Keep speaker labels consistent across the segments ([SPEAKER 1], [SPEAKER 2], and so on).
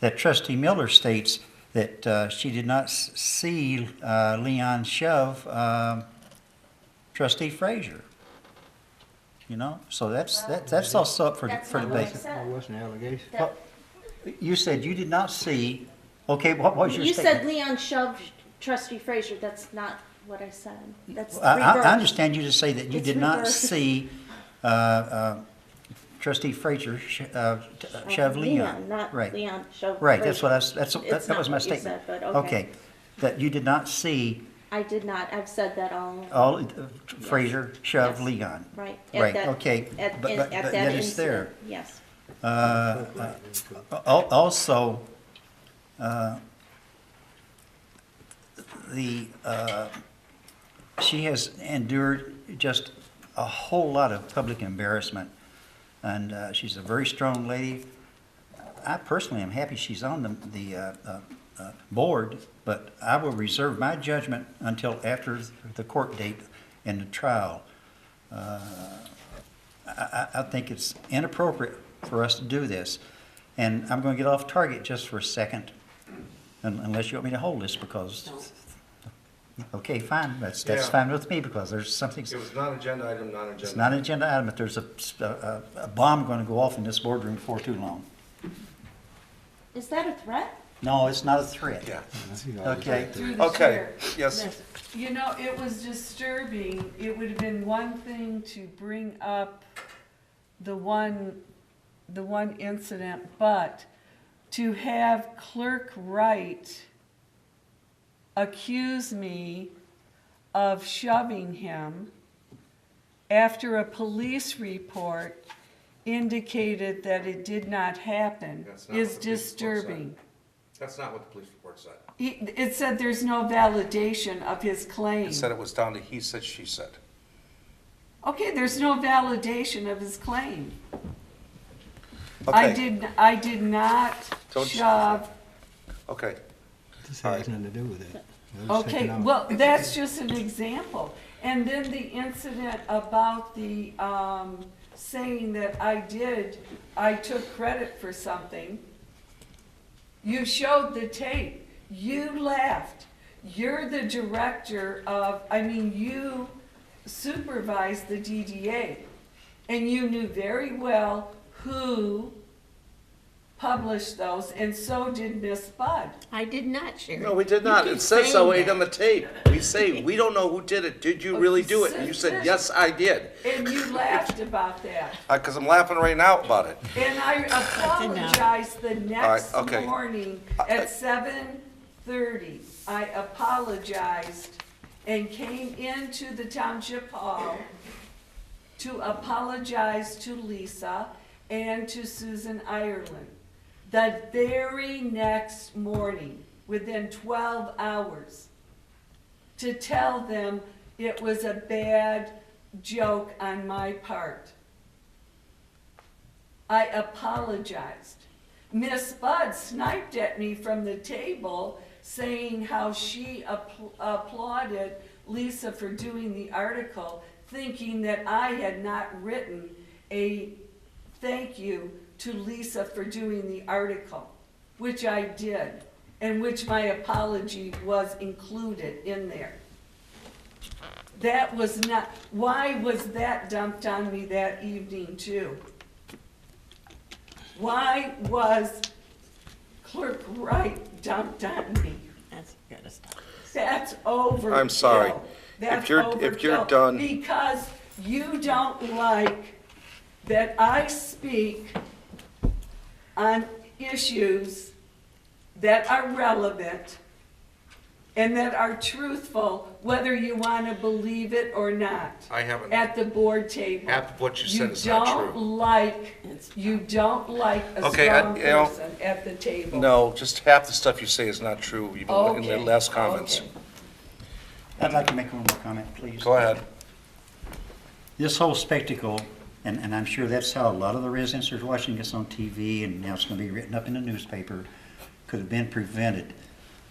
[SPEAKER 1] that trustee Miller states that uh, she did not s- see uh, Leon shove um, trustee Frazier. You know, so that's, that- that's also up for
[SPEAKER 2] That's
[SPEAKER 1] for
[SPEAKER 2] not
[SPEAKER 1] debate.
[SPEAKER 2] what I said.
[SPEAKER 3] That wasn't an allegation.
[SPEAKER 2] That-
[SPEAKER 1] You said you did not see, okay, what was your
[SPEAKER 2] You said
[SPEAKER 1] statement?
[SPEAKER 2] Leon shoved trustee Frazier, that's not what I said. That's
[SPEAKER 1] I, I- I
[SPEAKER 2] reversed.
[SPEAKER 1] understand you to say that you
[SPEAKER 2] It's
[SPEAKER 1] did not
[SPEAKER 2] reversed.
[SPEAKER 1] see uh, uh, trustee Frazier sh- uh, t- uh, shove Leon.
[SPEAKER 2] Not
[SPEAKER 1] Right.
[SPEAKER 2] Oh, Leon shoved.
[SPEAKER 1] Right, that's what I, s-
[SPEAKER 2] Frazier.
[SPEAKER 1] that's, that-
[SPEAKER 2] It's
[SPEAKER 1] that
[SPEAKER 2] not
[SPEAKER 1] was my
[SPEAKER 2] what you
[SPEAKER 1] statement.
[SPEAKER 2] said, but okay.
[SPEAKER 1] That you did not see
[SPEAKER 2] I did not, I've said that all,
[SPEAKER 1] all, uh, Frazier shove
[SPEAKER 2] Yes.
[SPEAKER 1] Leon.
[SPEAKER 2] right. at
[SPEAKER 1] Right,
[SPEAKER 2] that-
[SPEAKER 1] okay,
[SPEAKER 2] At,
[SPEAKER 1] but-
[SPEAKER 2] in-
[SPEAKER 1] but-
[SPEAKER 2] at
[SPEAKER 1] but
[SPEAKER 2] that
[SPEAKER 1] yet it's there.
[SPEAKER 2] incident, yes.
[SPEAKER 1] Al- Also, uh, the, uh, she has endured just a whole lot of public embarrassment, and uh, she's a very strong lady. I personally am happy she's on the, the uh, uh, uh, board, but I will reserve my judgment until after the court date and the trial. Uh, I, I I think it's inappropriate for us to do this. And I'm going to get off target just for a second, un- unless you want me to hold this because, okay, fine, that's, that's
[SPEAKER 4] Yeah.
[SPEAKER 1] fine with me because there's something,
[SPEAKER 4] It was non-agenda item, non-agenda.
[SPEAKER 1] it's not an agenda item, but there's a, a, a bomb going to go off in this boardroom before too long.
[SPEAKER 2] Is that a threat?
[SPEAKER 1] No, it's not a threat. Okay,
[SPEAKER 5] Through the
[SPEAKER 4] Okay,
[SPEAKER 5] chair.
[SPEAKER 4] yes.
[SPEAKER 5] You know, it was disturbing. It would have been one thing to bring up the one, the one incident, but to have Clerk Wright accuse me of shoving him after a police report indicated that it did not happen
[SPEAKER 4] That's not
[SPEAKER 5] is
[SPEAKER 4] what the police report said.
[SPEAKER 5] disturbing.
[SPEAKER 4] That's not what the police report said.
[SPEAKER 5] He, it said there's no validation of his claim.
[SPEAKER 4] It said it was down to he said, she said.
[SPEAKER 5] Okay, there's no validation of his claim. I
[SPEAKER 4] Okay.
[SPEAKER 5] did, I did not
[SPEAKER 4] Don't-
[SPEAKER 5] shove,
[SPEAKER 4] Okay,
[SPEAKER 3] This has nothing to do with it. It was
[SPEAKER 5] okay,
[SPEAKER 3] taken out.
[SPEAKER 5] well, that's just an example. And then the incident about the, um, saying that I did, I took credit for something. You showed the tape, you laughed, you're the director of, I mean, you supervise the DDA. And you knew very well who published those, and so did Miss Bud.
[SPEAKER 2] I did not share.
[SPEAKER 4] No, we did not.
[SPEAKER 2] You keep
[SPEAKER 4] It says so
[SPEAKER 2] saying
[SPEAKER 4] right on the
[SPEAKER 2] that.
[SPEAKER 4] tape. We say, we don't know who did it. Did you really do it? And you said, yes, I did.
[SPEAKER 5] And you laughed about that.
[SPEAKER 4] Because Uh, I'm laughing right now about it.
[SPEAKER 5] And I apologized the next
[SPEAKER 4] All right, okay.
[SPEAKER 5] morning
[SPEAKER 4] I-
[SPEAKER 5] at seven thirty. I apologized and came into the township hall to apologize to Lisa and to Susan Ireland. The very next morning, within twelve hours, to tell them it was a bad joke on my part. I apologized. Miss Bud sniped at me from the table saying how she appl- applauded Lisa for doing the article, thinking that I had not written a thank you to Lisa for doing the article, which I did, and which my apology was included in there. That was not, why was that dumped on me that evening too? Why was Clerk Wright dumped on me?
[SPEAKER 6] That's gotta stop.
[SPEAKER 5] That's over.
[SPEAKER 4] I'm sorry. If
[SPEAKER 5] That's
[SPEAKER 4] you're- if you're
[SPEAKER 5] overkill.
[SPEAKER 4] done-
[SPEAKER 5] Because you don't like that I speak on issues that are relevant and that are truthful, whether you want to believe it or not.
[SPEAKER 4] I haven't-
[SPEAKER 5] At the board table.
[SPEAKER 4] Half of what you said is not
[SPEAKER 5] You
[SPEAKER 4] true.
[SPEAKER 5] don't like, you don't like a
[SPEAKER 4] Okay, I-
[SPEAKER 5] strong
[SPEAKER 4] you know-
[SPEAKER 5] person at the table.
[SPEAKER 4] No, just half the stuff you say is not true, even in the
[SPEAKER 5] Okay,
[SPEAKER 4] last comments.
[SPEAKER 5] okay.
[SPEAKER 1] I'd like to make one more comment, please.
[SPEAKER 4] Go ahead.
[SPEAKER 1] this whole spectacle, and, and I'm sure that's how a lot of the residents are watching this on TV, and now it's gonna be written up in the newspaper, could have been prevented.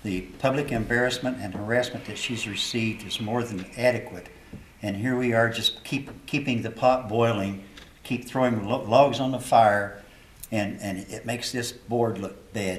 [SPEAKER 1] The public embarrassment and harassment that she's received is more than adequate. And here we are, just keep, keeping the pot boiling, keep throwing lo- logs on the fire, and, and it makes this board look bad.